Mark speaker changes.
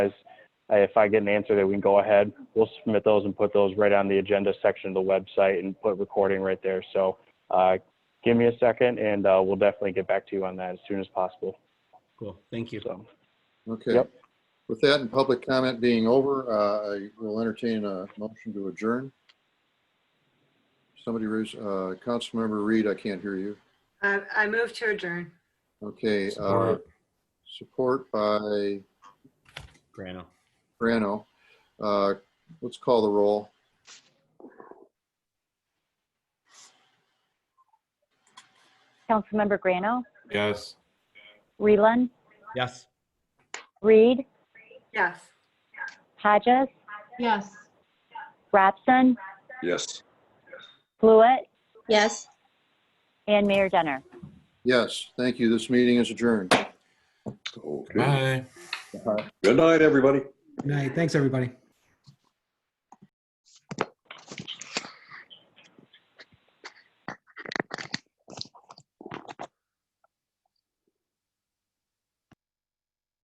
Speaker 1: Uh, If I get an answer that we can go ahead, we'll submit those and put those right on the agenda section of the website and put recording right there. So uh, give me a second and uh, we'll definitely get back to you on that as soon as possible.
Speaker 2: Cool, thank you.
Speaker 1: So,
Speaker 3: Okay.
Speaker 1: Yep.
Speaker 3: With that and public comment being over, uh, I will entertain a motion to adjourn. Somebody raise, uh, Councilmember Reed, I can't hear you.
Speaker 4: I I move to adjourn.
Speaker 3: Okay, uh,
Speaker 2: Support.
Speaker 3: support by
Speaker 2: Grano.
Speaker 3: Brano. Uh, let's call the roll.
Speaker 5: Councilmember Grano,
Speaker 6: Yes.
Speaker 5: Reland,
Speaker 2: Yes.
Speaker 5: Reed,
Speaker 4: Yes.
Speaker 5: Hodges,
Speaker 7: Yes.
Speaker 5: Robson,
Speaker 6: Yes.
Speaker 5: Fluid,
Speaker 7: Yes.
Speaker 5: and Mayor Denner.
Speaker 3: Yes, thank you. This meeting is adjourned.
Speaker 6: Okay.
Speaker 8: Good night, everybody.
Speaker 9: Good night. Thanks, everybody.